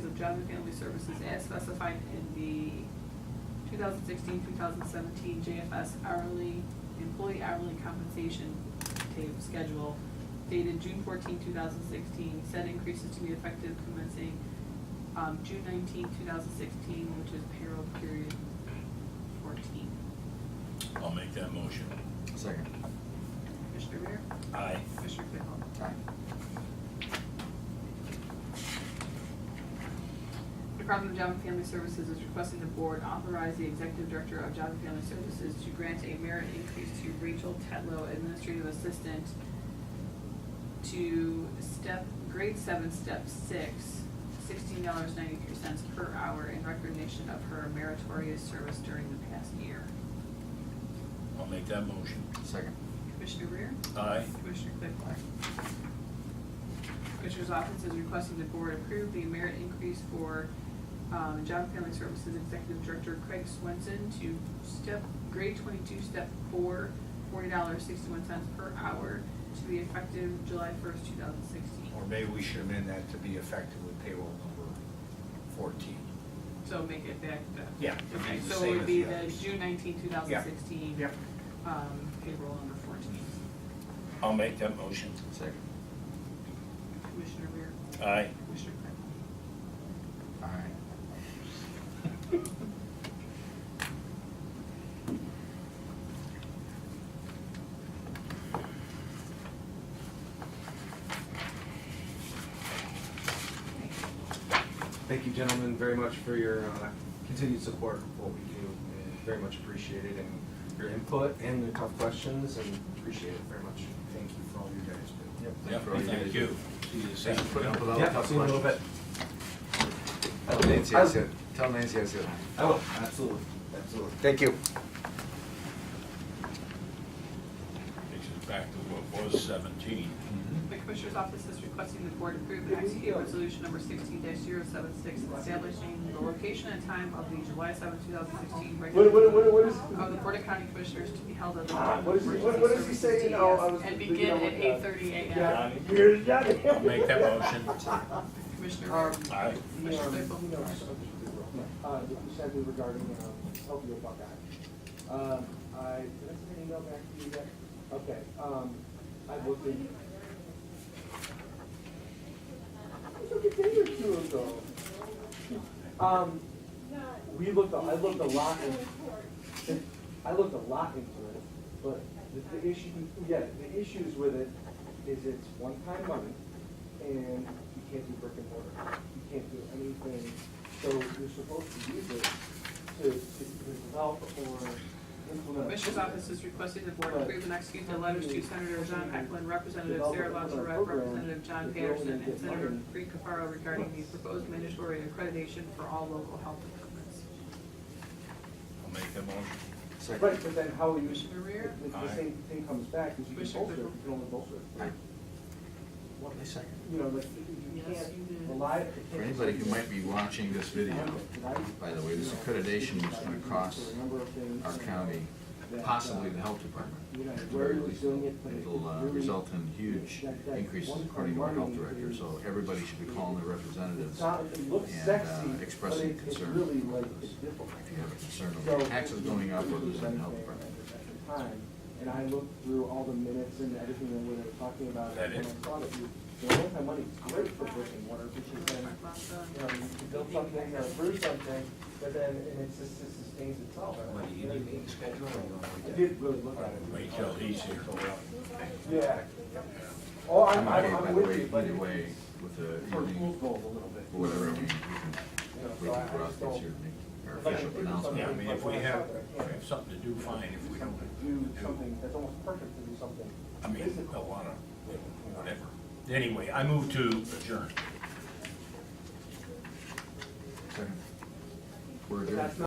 Job and Family Services as specified in the 2016-2017 JFS hourly, employee hourly compensation ta- schedule dated June 14, 2016. Said increases to be effective commencing um, June 19, 2016, which is payroll period 14. I'll make that motion. Second. Commissioner Rea? Aye. Commissioner Claypool? The Department of Job and Family Services is requesting the board authorize the executive director of Job and Family Services to grant a merit increase to Rachel Tetlow, administrative assistant, to step, grade seven, step six, sixteen dollars ninety-three cents per hour in recognition of her meritorious service during the past year. I'll make that motion. Second. Commissioner Rea? Aye. Commissioner Claypool? Commissioner's office is requesting the board approve the merit increase for um, Job and Family Services Executive Director Craig Swenson to step, grade twenty-two, step four, forty dollars, sixty-one cents per hour to be effective July first, two thousand sixteen. Or maybe we should amend that to be effective with payroll number fourteen. So make it back to. Yeah, it'd be Okay, the so same it would as be the the others. June nineteenth, two thousand sixteen. Yep. Um, payroll number fourteen. I'll make that motion. Second. Commissioner Rea? Aye. Commissioner Claypool? All right. Thank you, gentlemen, very much for your uh, continued support of what we do. and Very much appreciated, and your input and the tough questions, and appreciate it very much. Thank you for all you guys do. Yep. Yeah, Thank you for all thank guys. you. Thanks for putting up with all the Yeah, tough see you in a little bit. questions. Tell Nancy I said, tell Nancy I said. I will, absolutely, absolutely. Thank you. Takes us back to what was seventeen. Mm-hmm. The Commissioner's Office is requesting the Board approve and execute Resolution Number sixteen 76 establishing the location and time of the July seventh, two thousand sixteen regular. What- what- what- what is- Of the Board of County Commissioners to be held at the. Uh, What is he- what- what is he saying? Oh, I was And reading begin on at what, uh, eight thirty AM. Yeah, Here's Johnny. I'll make that motion. Commissioner, Aye. You know, Mr. Claypool. you know, uh, what you said regarding, um, help you about that. Um, I, did I send an email back to you yet? Okay, um, I've looked in. It's like a day or two ago. Um, we looked, a- I looked a lot in, I looked a lot into it, but the, the issue, yeah, the issues with it is it's one-time money, and you can't do brick and mortar, you can't do anything, so you're supposed to use it to, to develop or implement. Commissioner's Office is requesting the Board approve and execute the letters to Senator John Eklund, Representative Sarah Longerat, Representative John Patterson, and Senator Free Cafaro regarding the proposed mandatory accreditation for all local health departments. I'll make that motion. Second. Right, but then how you, Commissioner Rea? if the Aye. same thing comes back, is you can Commissioner bolster, it, Claypool? you can only bolster it. Aye. What, Second. you know, like, you Yes, can't you did. rely. For anybody who might be watching this video, by the way, this accreditation is gonna cost our county, possibly the health department. at the very least. It'll uh, result in huge increases according to our health director, so everybody should be calling their representatives It's not, it looks and, uh, sexy, but expressing it- it's concern really about like, this. it's difficult. if you have a concern So- over taxes going up or losing health department. At the time, And I looked through all the minutes and everything that we were talking about, That and I is- saw that you, the one time money is great for brick and mortar, because then, you know, you can build something, or brew something, but then, and it's just, it sustains itself. What, do you need me to schedule or you want me I to? did really look at it. Wait till he's here. Yeah. Oh, I'm I'm, okay, I'm, by I'm the with way, you, but. either way, with the For evening, rules goals a little bit. or whatever, I mean, we can, You know, we so I- can I put out just this don't- year, make our I'd like to official do something. Yeah, I announcement. mean, if we have, if we have something to do, fine, if we don't, Do something, that's almost perfect to do something. I mean, physical. a lot of, whatever. Anyway, I move to adjourn. Second. We're But adjourned. that's not